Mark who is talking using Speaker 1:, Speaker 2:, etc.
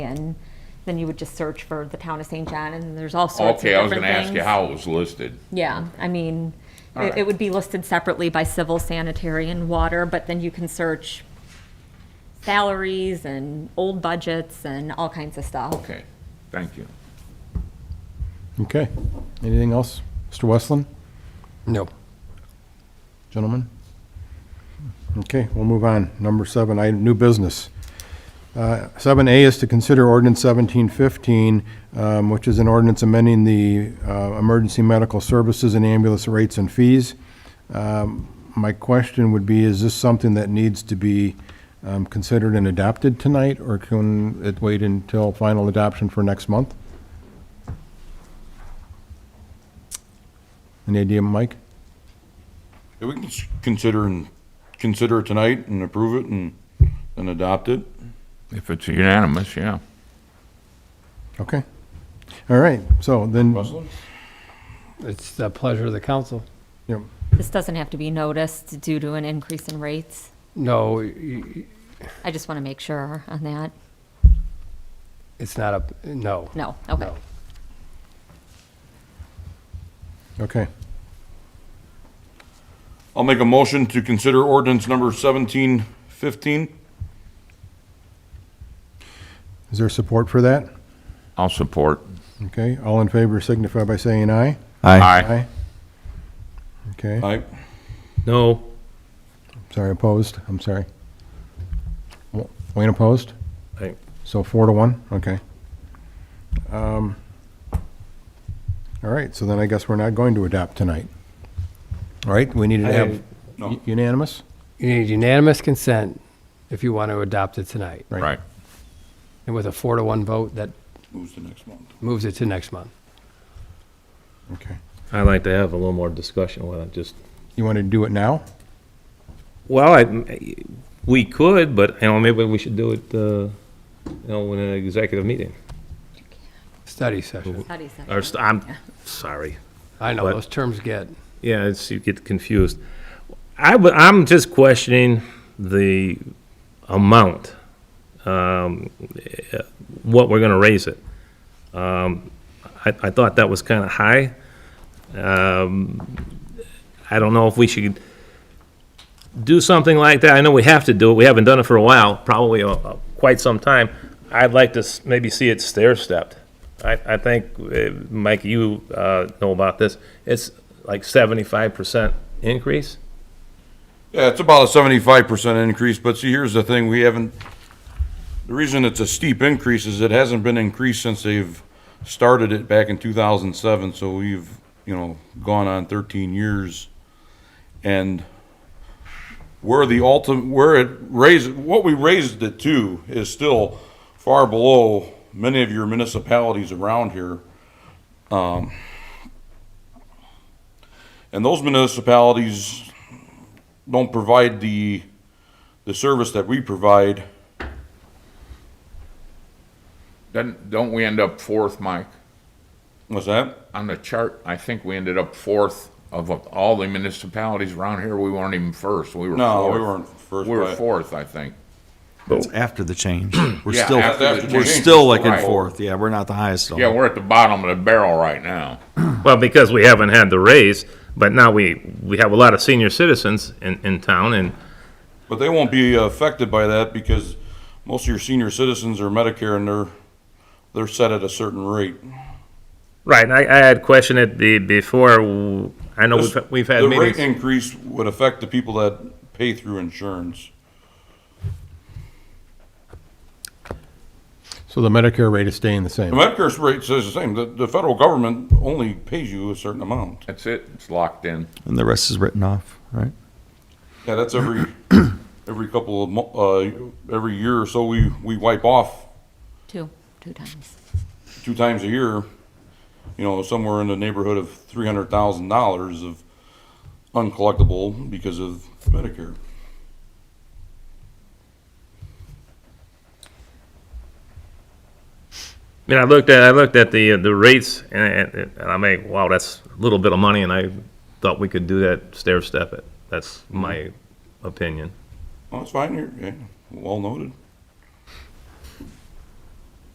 Speaker 1: and then you would just search for the town of St. John, and there's all sorts of
Speaker 2: Okay, I was
Speaker 1: different
Speaker 2: gonna ask you
Speaker 1: things.
Speaker 2: how it was listed.
Speaker 1: Yeah, I mean, it- it
Speaker 2: Alright.
Speaker 1: would be listed separately by civil, sanitary, and water, but then you can search salaries and old budgets and all kinds of stuff.
Speaker 2: Okay, thank you.
Speaker 3: Okay. Anything else? Mr. Westland,
Speaker 4: No.
Speaker 3: gentlemen? Okay, we'll move on. Number seven, item, new business. Uh, Seven A is to consider ordinance seventeen fifteen, um, which is an ordinance amending the uh, emergency medical services and ambulance rates and fees. Um, My question would be, is this something that needs to be um, considered and adopted tonight, or can it wait until final adoption for next month? Any idea, Mike?
Speaker 5: Yeah, we can s- consider and, consider it tonight and approve it and, and adopt it.
Speaker 2: If it's unanimous, yeah.
Speaker 3: Okay. All right, so then.
Speaker 5: Russell?
Speaker 4: It's the pleasure of the council.
Speaker 3: Yep.
Speaker 1: This doesn't have to be noticed due to an increase in rates.
Speaker 4: No, y- y-
Speaker 1: I just want to make sure on that.
Speaker 4: it's not a, no.
Speaker 1: No, okay.
Speaker 4: No.
Speaker 3: Okay,
Speaker 5: I'll make a motion to consider ordinance number seventeen fifteen.
Speaker 3: is there support for that?
Speaker 2: I'll support.
Speaker 3: Okay, all in favor signify by saying aye.
Speaker 2: Aye.
Speaker 3: Okay,
Speaker 5: Aye.
Speaker 6: No.
Speaker 3: sorry, opposed, I'm sorry. W- Wayne opposed?
Speaker 6: Aye.
Speaker 3: So four to one, okay. Um, All right, so then I guess we're not going to adopt tonight. All right, we need to
Speaker 4: I-
Speaker 3: have
Speaker 5: No.
Speaker 3: unanimous?
Speaker 4: You need unanimous consent if you want to adopt it tonight.
Speaker 2: Right.
Speaker 4: And with a four to one vote, that
Speaker 5: Moves to next month.
Speaker 4: moves it to next month.
Speaker 3: Okay,
Speaker 6: I'd like to have a little more discussion with it, just.
Speaker 3: you want to do it now?
Speaker 6: Well, I, we could, but, you know, maybe we should do it, uh, you know, in an executive meeting.
Speaker 4: Study session.
Speaker 1: How do you say
Speaker 6: Or,
Speaker 1: it?
Speaker 6: st- I'm, sorry.
Speaker 4: I know,
Speaker 6: What?
Speaker 4: those terms get,
Speaker 6: Yeah, it's, you get confused. I, w- I'm just questioning the amount, um, eh, what we're gonna raise it. Um, I, I thought that was kinda high. Um, I don't know if we should do something like that. I know we have to do it. We haven't done it for a while, probably uh, uh, quite some time. I'd like to s- maybe see it stair-stepped. I, I think, uh, Mike, you uh, know about this. It's like seventy-five percent increase.
Speaker 5: Yeah, it's about a seventy-five percent increase, but see, here's the thing, we haven't, the reason it's a steep increase is it hasn't been increased since they've started it back in two thousand seven, so we've, you know, gone on thirteen years. And where the ultimate, where it raised, what we raised it to is still far below many of your municipalities around here. Um, And those municipalities don't provide the, the service that we provide.
Speaker 2: Then, don't we end up fourth, Mike?
Speaker 5: What's that?
Speaker 2: On the chart, I think we ended up fourth of all the municipalities around here. We weren't even first. We were
Speaker 5: No, we
Speaker 2: fourth.
Speaker 5: weren't first.
Speaker 2: We were
Speaker 5: but-
Speaker 2: fourth, I think.
Speaker 7: It's after the change. We're
Speaker 2: Yeah,
Speaker 7: still,
Speaker 2: after the
Speaker 7: we're
Speaker 2: change.
Speaker 7: still like in
Speaker 2: Right.
Speaker 7: fourth. Yeah, we're not the highest still.
Speaker 2: Yeah, we're at the bottom of the barrel right now.
Speaker 6: Well, because we haven't had the raise, but now we, we have a lot of senior citizens in, in town and
Speaker 5: But they won't be affected by that because most of your senior citizens are Medicare and they're, they're set at a certain rate.
Speaker 6: Right, and I, I had questioned it be, before, w- I know we've, we've had
Speaker 5: The rate
Speaker 6: meetings.
Speaker 5: increase would affect the people that pay through insurance.
Speaker 3: So the Medicare rate is staying the
Speaker 5: The
Speaker 3: same?
Speaker 5: Medicare rate says the same, the, the federal government only pays you a certain amount.
Speaker 2: That's it. It's locked in.
Speaker 7: And the rest is written off, right?
Speaker 5: Yeah, that's every, every couple of, mo- uh, every year or so, we, we wipe off
Speaker 1: Two, two times.
Speaker 5: two times a year, you know, somewhere in the neighborhood of three hundred thousand dollars of uncollectible because of Medicare.
Speaker 6: I mean, I looked at, I looked at the, uh, the rates and, and and I'm like, wow, that's a little bit of money and I thought we could do that stair step it. That's my opinion.
Speaker 5: Well, that's fine, you're, yeah, well noted.